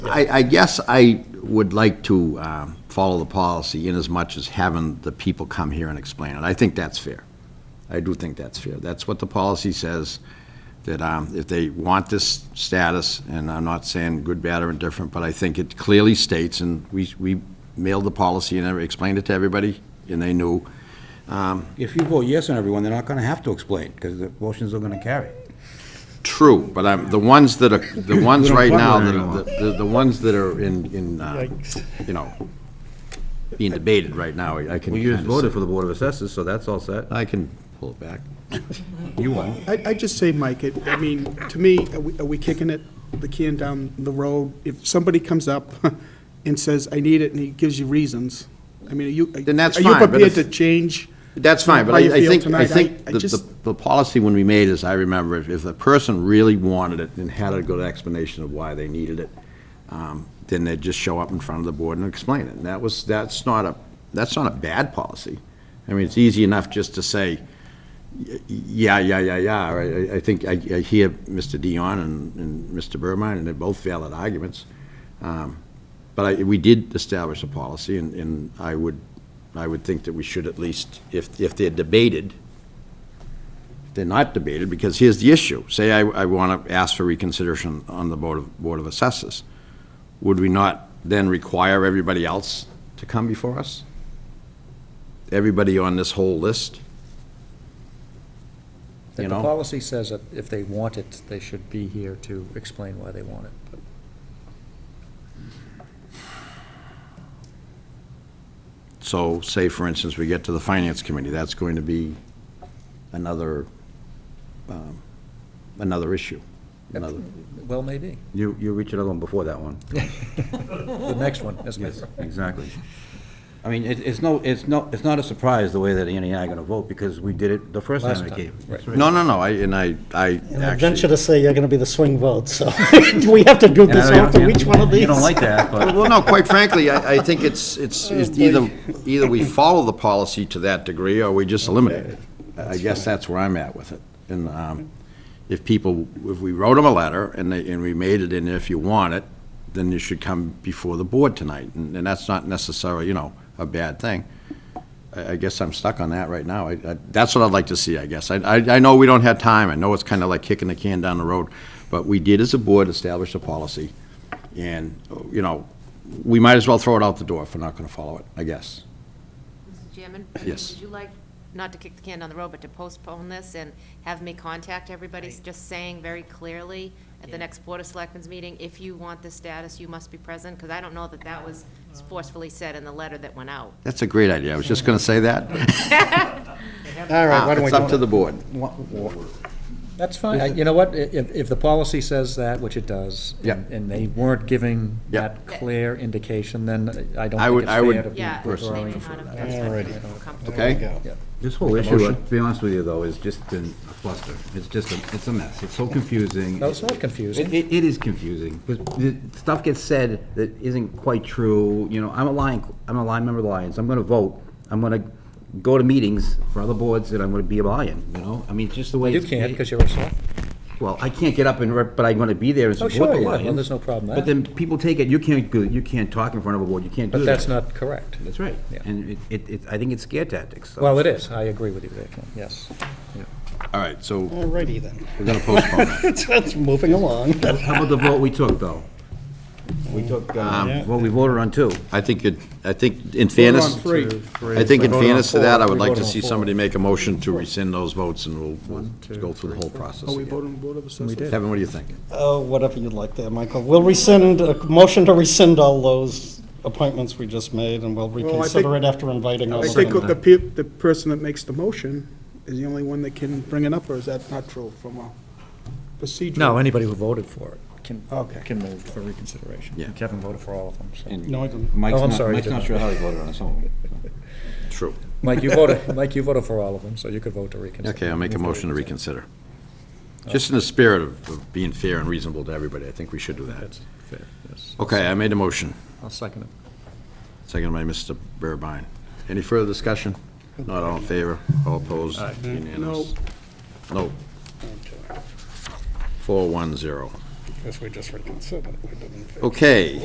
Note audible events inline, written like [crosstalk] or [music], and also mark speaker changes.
Speaker 1: I, I guess I would like to um, follow the policy in as much as having the people come here and explain it. I think that's fair. I do think that's fair. That's what the policy says, that um, if they want this status, and I'm not saying good, bad, or indifferent, but I think it clearly states, and we, we mailed the policy and I explained it to everybody, and they knew.
Speaker 2: If you vote yes on everyone, they're not gonna have to explain, because the motions are gonna carry.
Speaker 1: True, but I'm, the ones that are,
Speaker 2: [laughs]
Speaker 1: the
Speaker 2: We
Speaker 1: ones
Speaker 2: don't
Speaker 1: right
Speaker 2: want
Speaker 1: now,
Speaker 2: one
Speaker 1: that
Speaker 2: anymore.
Speaker 1: are, the, the ones that are in, in, uh, you know, being debated right now, I can
Speaker 2: We just
Speaker 1: kinda
Speaker 2: voted
Speaker 1: say-
Speaker 2: for the Board of Assessors, so that's all set.
Speaker 1: I can pull it back.
Speaker 2: You won't.
Speaker 3: I, I just say, Mike, it, I mean, to me, are we, are we kicking it, the can down the road? If somebody comes up [laughs] and says, I need it, and he gives you reasons, I mean, are you,
Speaker 1: Then that's
Speaker 3: are you
Speaker 1: fine, but
Speaker 3: prepared
Speaker 1: if-
Speaker 3: to change?
Speaker 1: That's fine, but
Speaker 3: how you
Speaker 1: I I
Speaker 3: feel
Speaker 1: think, I
Speaker 3: tonight?
Speaker 1: think
Speaker 3: I
Speaker 1: the,
Speaker 3: just-
Speaker 1: the- the policy when we made is, I remember, if, if the person really wanted it and had a good explanation of why they needed it, um, then they'd just show up in front of the board and explain it. And that was, that's not a, that's not a bad policy. I mean, it's easy enough just to say, y- yeah, yeah, yeah, yeah. or I, I think, I, I hear Mr. Dion and, and Mr. Burmine, and they're both valid arguments. Um, But I, we did establish a policy, and, and I would, I would think that we should at least, if, if they're debated, if they're not debated, because here's the issue. Say I, I want to ask for reconsideration on the Board of, Board of Assessors. Would we not then require everybody else to come before us? Everybody on this whole list?
Speaker 4: The
Speaker 1: You know?
Speaker 4: policy says that if they want it, they should be here to explain why they want it. but-
Speaker 1: So, say, for instance, we get to the Finance Committee, that's going to be another, um, another issue. Another,
Speaker 4: Well, maybe.
Speaker 2: You, you reach another one before that [laughs] one.
Speaker 4: The next one, isn't it?
Speaker 2: Exactly. I mean, it, it's no, it's no, it's not a surprise the way that Annie and I are gonna vote, because we did it the first
Speaker 4: Last
Speaker 2: time we
Speaker 4: time,
Speaker 2: came.
Speaker 4: right.
Speaker 1: no, no, no, I, and I, I
Speaker 5: And I venture
Speaker 1: actually.
Speaker 5: to say you're going to be the swing vote, so [laughs] do we have to do
Speaker 2: And I
Speaker 5: this
Speaker 2: don't-
Speaker 5: after each one of these?
Speaker 2: You don't like that, but. [laughs]
Speaker 1: Well, no, quite frankly, I, I think it's, it's, it's either, either we follow the policy to that degree, or we just eliminate it. I guess that's where I'm at with it. And, um, if people, if we wrote them a letter, and they, and we made it in, if you want it, then you should come before the board tonight, and, and that's not necessarily, you know, a bad thing. I, I guess I'm stuck on that right now. I, I, that's what I'd like to see, I guess. I, I, I know we don't have time. I know it's kind of like kicking the can down the road. But we did, as a board, establish a policy. And, you know, we might as well throw it out the door if we're not going to follow it, I guess.
Speaker 6: Mr. Chairman?
Speaker 1: Yes.
Speaker 6: Would you like, not to kick the can down the road, but to postpone this and have me contact everybody, just saying very clearly at the next Board of Selectmen's meeting, if you want this status, you must be present? Because I don't know that that was forcefully said in the letter that went out.
Speaker 1: That's a great idea. I was just going to say that.
Speaker 5: All right, why don't we
Speaker 1: It's
Speaker 5: do
Speaker 1: up to
Speaker 5: it?
Speaker 1: the board.
Speaker 4: That's fine. I- You know what, I- if, if the policy says that, which it does,
Speaker 1: Yeah.
Speaker 4: and- and they weren't giving
Speaker 1: Yeah.
Speaker 4: that clear indication, then I don't
Speaker 1: I
Speaker 4: think
Speaker 1: would-
Speaker 4: it's
Speaker 1: I would
Speaker 4: fair to be
Speaker 6: Yeah. they
Speaker 1: personally
Speaker 4: withdrawing.
Speaker 6: may not
Speaker 4: from
Speaker 6: have-
Speaker 4: that.
Speaker 6: that's what I feel
Speaker 5: Alrighty.
Speaker 6: comfortable
Speaker 1: Okay.
Speaker 6: with.
Speaker 5: There we go.
Speaker 2: This whole
Speaker 1: Make a
Speaker 2: issue, to
Speaker 1: motion.
Speaker 2: be honest with you, though, has just been a cluster. It's just, a it's a mess. It's so confusing.
Speaker 4: No, it's not confusing.
Speaker 2: It- It, it is confusing, because the stuff gets said that isn't quite true, you know, I'm a Lion, I'm a Lion member of the Lions, I'm gonna vote, I'm gonna go to meetings for other boards, and I'm gonna be a Lion, you know? I mean, it's just the way.
Speaker 4: You
Speaker 2: it's-
Speaker 4: can't, because you're a select.
Speaker 2: Well, I can't get up and, rep- but I'm gonna be there and
Speaker 4: Oh,
Speaker 2: support
Speaker 4: sure,
Speaker 2: the
Speaker 4: yeah, well,
Speaker 2: Lions.
Speaker 4: there's no problem with
Speaker 2: But
Speaker 4: that.
Speaker 2: then people take it, you can't, go- you can't talk in front of a board, you can't do
Speaker 4: But
Speaker 2: that.
Speaker 4: that's not correct.
Speaker 2: That's right,
Speaker 4: Yeah.
Speaker 2: and it- it, it, I think it's scare tactics. so-
Speaker 4: Well, it is. I agree with you there, Ken, yes.
Speaker 1: All right, so
Speaker 5: All righty then. [laughs]
Speaker 1: we're going to postpone it.
Speaker 5: That's moving along.
Speaker 2: How about the vote we took, though? We took, um, what we voted on
Speaker 4: Oh,
Speaker 2: two.
Speaker 1: [laughs] I think it, I think in fairness,
Speaker 2: three.
Speaker 1: I think in
Speaker 4: Vote on
Speaker 1: fairness to that, I
Speaker 4: four.
Speaker 1: would
Speaker 4: We
Speaker 1: like
Speaker 4: vote
Speaker 1: to
Speaker 4: on
Speaker 1: see
Speaker 4: four.
Speaker 1: somebody make a motion to rescind those votes and we'll-
Speaker 4: One,
Speaker 1: we'll
Speaker 4: two,
Speaker 1: go through the whole process
Speaker 3: Are Oh, we
Speaker 1: again.
Speaker 3: voting on Board of Assessors?
Speaker 1: Kevin, what do you think?
Speaker 5: Oh, whatever you'd like there, Michael. We'll rescind, a motion to rescind all those appointments we just made, and we'll
Speaker 3: Well, I
Speaker 5: reconsider
Speaker 3: think-
Speaker 5: it after inviting all
Speaker 3: I
Speaker 5: of
Speaker 3: think
Speaker 5: them.
Speaker 3: the pe, the person that makes the motion is the only one that can bring it up, or is that not true from a procedural?
Speaker 4: No, anybody who voted for it can,
Speaker 3: Okay.
Speaker 4: can move for reconsideration.
Speaker 1: Yeah.
Speaker 4: Kevin voted for all of them, so.
Speaker 5: No, I didn't.
Speaker 2: Mike's
Speaker 4: Oh, I'm
Speaker 2: not-
Speaker 4: sorry,
Speaker 2: Mike's
Speaker 4: did
Speaker 2: not
Speaker 4: not.
Speaker 2: sure how he voted on some of it.
Speaker 1: True.
Speaker 4: Mike, you voted, Mike, you voted for all of them, so you could vote to reconsider.
Speaker 1: Okay, I'll make a
Speaker 4: Move
Speaker 1: motion to reconsider. Just in the spirit of of being fair and reasonable to everybody, I think we should do that.
Speaker 4: That's fair, yes.
Speaker 1: Okay, I made a motion,
Speaker 4: I'll second it.
Speaker 1: seconded by Mr. Burbine. Any further discussion? Not all in favor, all opposed, unanimous? No. Four, one, zero.
Speaker 5: Guess we just reconsidered.
Speaker 1: Okay.